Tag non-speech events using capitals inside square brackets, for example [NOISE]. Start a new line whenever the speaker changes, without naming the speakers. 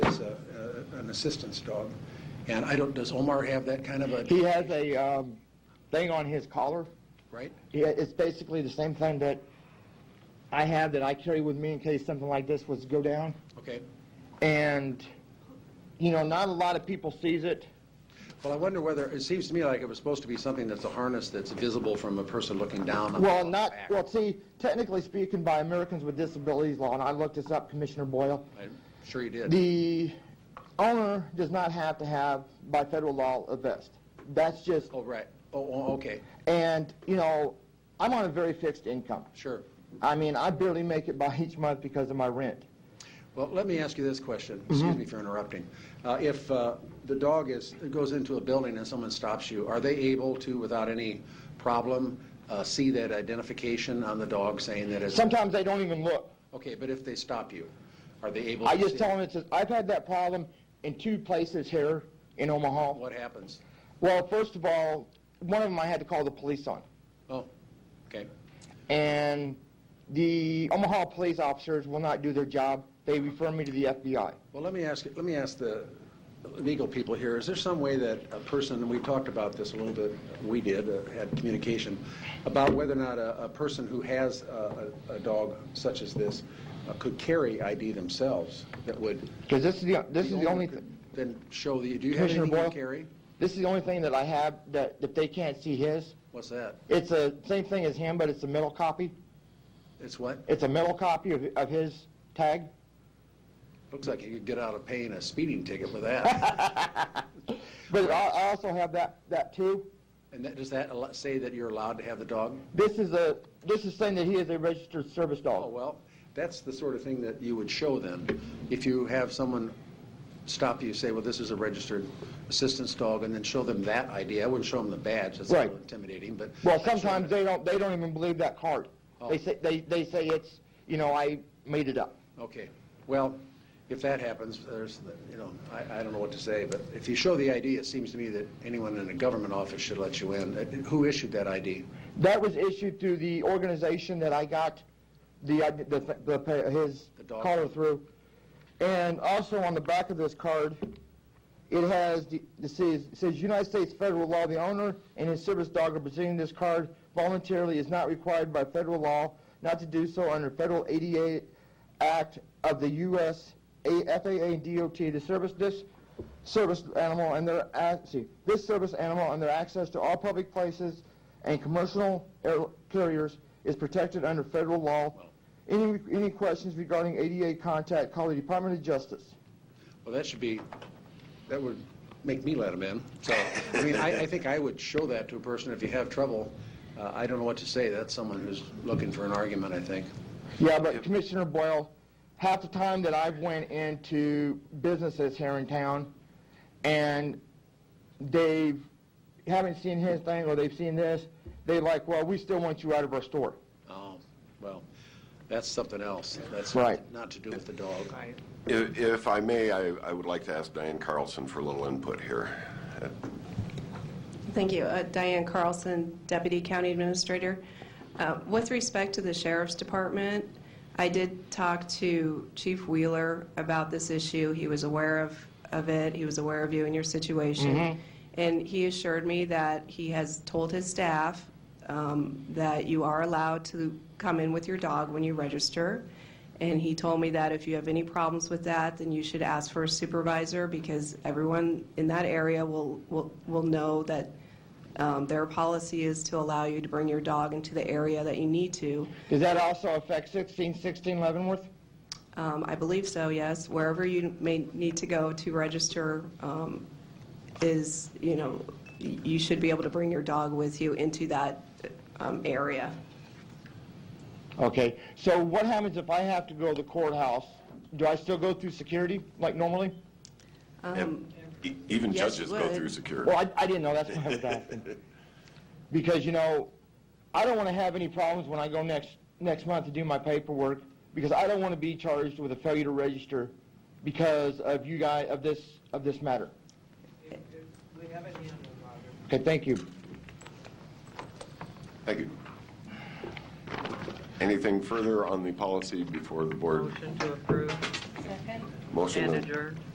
uh, assistance dog. And I don't, does Omar have that kind of a,
He has a um, thing on his collar.
right?
Yeah, it's basically the same thing that I have that I carry with me in case something like this was to go down.
Okay.
And you know, not a lot of people sees it.
Well, I wonder whether, it seems to me like it was supposed to be something that's a harness that's visible from a person looking down. on
Well,
the
not
back.
well. See, technically speaking, by Americans with Disabilities Law, and I looked this up, Commissioner Boyle.
I'm sure you did.
The owner does not have to have, by federal law, a vest. That's just,
Oh, right. Oh, Oh, okay,
and, you know, I'm on a very fixed income.
sure.
I mean, I barely make it by each month because of my rent.
Well, let me ask you this question.
Mm-hmm.
Excuse me for interrupting. Uh, If uh, the dog is, goes into a building and someone stops you, are they able to, without any problem, uh, see that identification on the dog saying that it's?
Sometimes they don't even look.
Okay, but if they stop you, are they able?
Oh, I
to
just
see
tell
it?
them it's, a- I've had that problem in two places here in Omaha.
What happens?
Well, first of all, one of them I had to call the police on.
Oh, okay,
And the Omaha police officers will not do their job. They refer me to the FBI.
well, let me ask, let me ask the legal people here, is there some way that a person, and we talked about this a little bit, we did, uh, had communication, about whether or not a, a person who has a, a a dog such as this uh, could carry ID themselves that would.
Because this is the, this is the only,
could
th-
Then show the, do you have
Commissioner
anything you
Boyle?
carry?
this is the only thing that I have that, that they can't see his.
What's that?
It's the same thing as him, but it's a metal copy.
It's what?
It's a metal copy of, of his tag.
Looks like you could get out of paying a speeding ticket with
[LAUGHS]
that.
But I, I also have that, that too.
And that, does that al- say that you're allowed to have the dog?
This is a, this is saying that he is a registered service
Oh,
dog.
well, that's the sort of thing that you would show them. If you have someone stop you, say, well, this is a registered assistance dog, and then show them that ID. I wouldn't show them the badge, that's a little
Right.
intimidating, but.
Well,
I'd show
sometimes
them-
they don't, they don't even believe that card.
Oh.
They say, they, they say it's, you know, I made it up.
Okay, well, if that happens, there's, you know, I, I don't know what to say, but if you show the ID, it seems to me that anyone in a government office should let you in. Uh, Who issued that ID?
That was issued through the organization that I got the, id- the, the, pa- his
The dog.
collar through. And also on the back of this card, it has, the- it says, it says United States federal law, the owner and his service dog are presenting this card voluntarily is not required by federal law not to do so under federal ADA Act of the U.S. A- FAA and DOT to service this service animal and their, ac- see, this service animal and their access to all public places and commercial air carriers is protected under federal law. Any, any questions regarding ADA contact, call the Department of Justice.
Well, that should be, that would make me let him in. So, I mean, I, I think I would show that to a person if you have trouble. Uh, I don't know what to say. That's someone who's looking for an argument, I think.
Yeah, but Commissioner Boyle, half the time that I've went into businesses here in town, and they haven't seen his thing, or they've seen this, they like, well, we still want you out of our store.
Oh, well, that's something else. That's
Right.
not to do with the dog.
If if I may, I I would like to ask Diane Carlson for a little input here.
Thank you. Uh, Diane Carlson, Deputy County Administrator. Uh, With respect to the Sheriff's Department, I did talk to Chief Wheeler about this issue. He was aware of, of it, he was aware of you and your situation. And he assured me that he has told his staff um, that you are allowed to come in with your dog when you register. And he told me that if you have any problems with that, then you should ask for a supervisor because everyone in that area will, will, will know that um, their policy is to allow you to bring your dog into the area that you need to.
Does that also affect 1616 Leavenworth?
Um, I believe so, yes. Wherever you may need to go to register um, is, you know, y- you should be able to bring your dog with you into that um, area.
Okay, so what happens if I have to go to the courthouse? Do I still go through security, like normally?
E- Even
yes,
judges
you
go
would.
through security.
Well, I, I didn't know, that's why I was asking. Because, you know, I don't want to have any problems when I go next, next month to do my paperwork, because I don't want to be charged with a failure to register because of you guys, of this, of this matter.
We have it handled, Roger.
Okay, thank you.
Thank you. Anything further on the policy before the board?
Motion to approve
Motion
and
and-
adjourn.